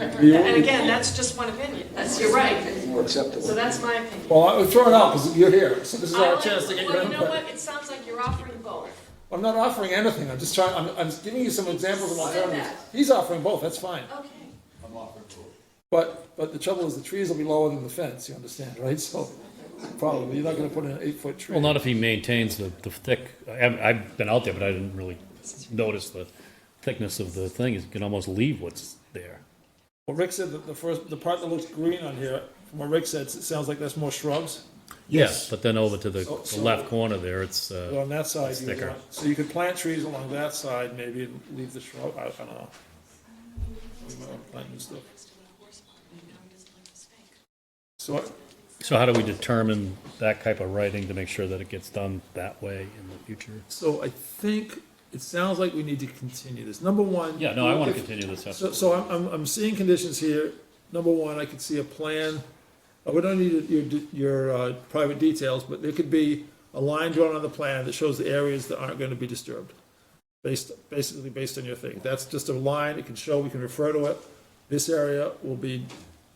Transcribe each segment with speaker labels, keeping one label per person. Speaker 1: And again, that's just one opinion, that's, you're right.
Speaker 2: More acceptable.
Speaker 1: So that's my opinion.
Speaker 3: Well, I was throwing out because you're here, so this is
Speaker 1: I
Speaker 3: our
Speaker 1: like-
Speaker 3: chance to get your
Speaker 1: Well, you know
Speaker 3: input.
Speaker 1: what, it sounds like you're offering both.
Speaker 3: I'm not offering anything, I'm just trying, I'm, I'm giving you some examples of
Speaker 1: Said
Speaker 3: alternatives.
Speaker 1: that.
Speaker 3: He's offering both, that's fine.
Speaker 1: Okay.
Speaker 3: But, but the trouble is the trees will be lower than the fence, you understand, right? So probably, you're not gonna put in an eight-foot tree.
Speaker 4: Well, not if he maintains the, the thick, I, haven't- I've been out there, but I didn't really notice the thickness of the thing. You can almost leave what's there.
Speaker 3: Well, Rick said that the first, the part that looks green on here, from what Rick says, it sounds like that's more shrubs.
Speaker 4: Yes. But then over to the,
Speaker 3: So-
Speaker 4: the
Speaker 3: so-
Speaker 4: left corner there, it's,
Speaker 3: But
Speaker 4: uh,
Speaker 3: on that side, you would
Speaker 4: thicker.
Speaker 3: want- so you could plant trees along that side, maybe, and leave the shrub, I, I don't know. Plant new stuff. So,
Speaker 4: so how do we determine that type of writing to make sure that it gets done that way in the future?
Speaker 3: so I think, it sounds like we need to continue this. Number one.
Speaker 4: Yeah, no, I want
Speaker 3: if-
Speaker 4: to continue this.
Speaker 3: So, so I'm, I'm, I'm seeing conditions here. Number one, I could see a plan. Uh, We don't need your, d- your, uh, private details, but there could be a line drawn on the plan that shows the areas that aren't gonna be disturbed. Based, basically based on your thing. That's just a line. It can show, we can refer to it. This area will be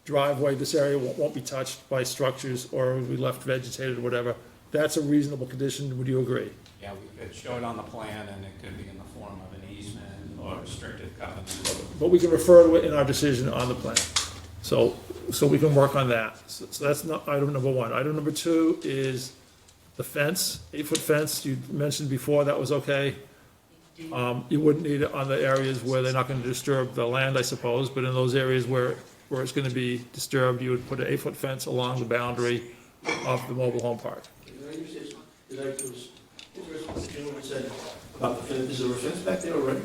Speaker 3: driveway, this area won't, won't be touched by structures or will be left vegetated or whatever. That's a reasonable condition. Would you agree?
Speaker 5: Yeah, we could show it on the plan, and it could be in the form of an easement or restrictive covenant.
Speaker 3: but we can refer to it in our decision on the plan. So, so we can work on that. So so that's not, item number one. Item number two is the fence, eight-foot fence, you mentioned before, that was okay. Um, you wouldn't need it on the areas where they're not gonna disturb the land, I suppose, but in those areas where, where it's gonna be disturbed, you would put an eight-foot fence along the boundary of the mobile home park.
Speaker 6: Can I use this, did I do this? The gentleman said, about the fence, is there a fence back there already?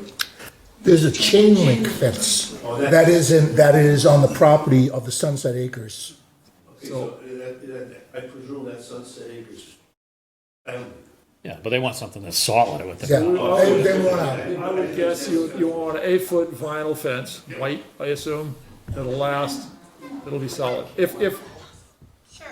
Speaker 7: There's a chain link fence
Speaker 6: Oh, that-
Speaker 7: that is in, that is on the property of the Sunset Acres.
Speaker 6: Okay, so, uh, that- that- I presume that's Sunset Acres. Um,
Speaker 4: Yeah, but they want something that's solid, I would
Speaker 7: Yeah,
Speaker 4: think.
Speaker 7: they, they want out.
Speaker 3: I would guess you, you want an eight-foot vinyl fence, white, I assume, that'll last, it'll be solid. If, if,
Speaker 1: Sure.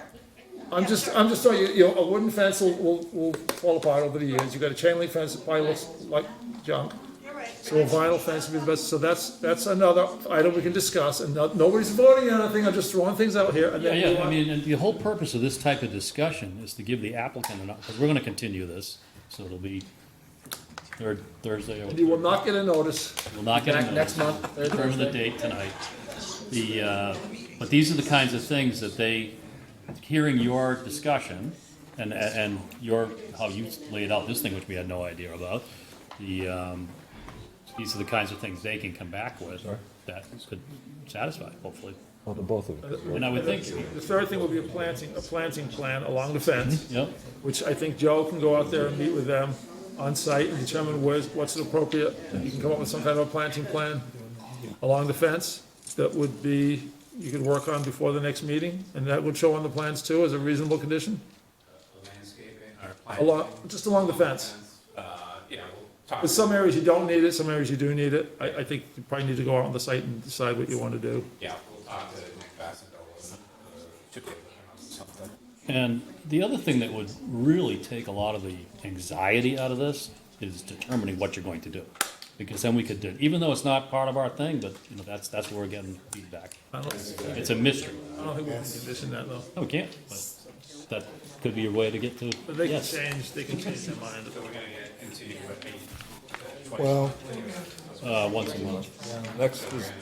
Speaker 3: I'm just, I'm just telling you, you know, a wooden fence will, will, will fall apart over the years. You've got a chain link fence that probably looks like junk.
Speaker 1: You're right.
Speaker 3: So a vinyl fence would be the best, so that's, that's another item we can discuss, and no- nobody's voting on anything, I'm just throwing things out here, and
Speaker 4: Yeah,
Speaker 3: then you
Speaker 4: yeah, I
Speaker 3: want-
Speaker 4: mean, and the whole purpose of this type of discussion is to give the applicant an, because we're going to continue this, so it'll be third, Thursday or.
Speaker 3: and you will not get a notice.
Speaker 4: We'll not get
Speaker 3: Back
Speaker 4: a
Speaker 3: next
Speaker 4: notice.
Speaker 3: month, third
Speaker 4: Determine the
Speaker 3: Thursday.
Speaker 4: date tonight. The, uh, but these are the kinds of things that they, hearing your discussion and, and your, how you laid out this thing, which we had no idea about, the, um, these are the kinds of things they can come back with that could satisfy, hopefully.
Speaker 8: Well, the both of them.
Speaker 4: And I would think,
Speaker 3: The third thing will be a planting, a planting plan along the fence,
Speaker 4: yep,
Speaker 3: which I think Joe can go out there and meet with them on site and determine where's, what's appropriate. You can come up with some kind of a planting plan along the fence that would be, you could work on before the next meeting, and that would show on the plans too as a reasonable condition,
Speaker 5: Landscaping or planting.
Speaker 3: along, just along the fence.
Speaker 5: Uh, yeah, we'll talk.
Speaker 3: But some areas you don't need it, some areas you do need it. I, I think you probably need to go out on the site and decide what you want to do.
Speaker 5: Yeah, we'll talk to Nick Bassendale. uh, Should be able to come up with something.
Speaker 4: And the other thing that would really take a lot of the anxiety out of this is determining what you're going to do. Because then we could do, even though it's not part of our thing, but, you know, that's, that's where we're getting feedback.
Speaker 3: I don't,
Speaker 4: It's a mystery.
Speaker 3: I don't think we can condition that though.
Speaker 4: No, we can't, but that could be a way to get to,
Speaker 3: But they can
Speaker 4: yes.
Speaker 3: change, they can change their mind.
Speaker 5: We're gonna get into what we-
Speaker 7: Well,
Speaker 4: Uh, once a month.
Speaker 8: Next is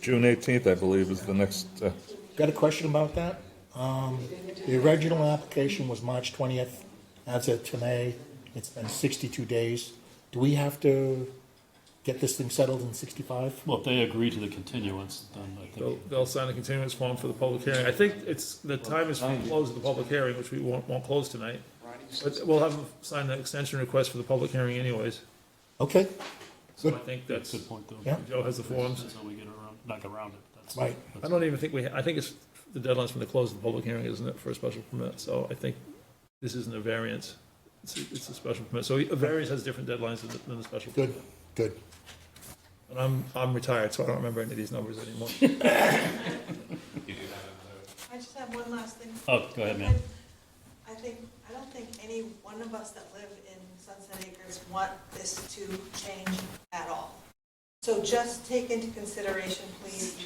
Speaker 8: June eighteenth, I believe, is the next, uh,
Speaker 7: got a question about that? Um, the original application was March twentieth. As of today, it's been sixty-two days. Do we have to get this thing settled in sixty-five?
Speaker 4: Well, if they agree to the continuance, then I
Speaker 3: They'll,
Speaker 4: think,
Speaker 3: they'll sign a continuance form for the public hearing. I think it's, the time is for close of the public hearing, which we won't, won't close tonight. But we'll have them sign an extension request for the public hearing anyways.
Speaker 7: Okay,
Speaker 3: So I think that's,
Speaker 4: good point though.
Speaker 7: Yeah.
Speaker 3: Joe has the forms.
Speaker 4: That's how we get around, back around it. That's-
Speaker 7: right.
Speaker 3: I don't even think we, I think it's, the deadline's from the close of the public hearing, isn't it, for a special permit? So I think this isn't a variance. It's, a- it's a special permit. So a variance has different deadlines than, the- than the special.
Speaker 7: Good, good.
Speaker 3: And I'm, I'm retired, so I don't remember any of these numbers anymore.
Speaker 5: You do that in
Speaker 9: I just have one last thing.
Speaker 4: Oh, go ahead, ma'am.
Speaker 9: I think, I don't think any one of us that live in Sunset Acres want this to change at all. So just take into consideration,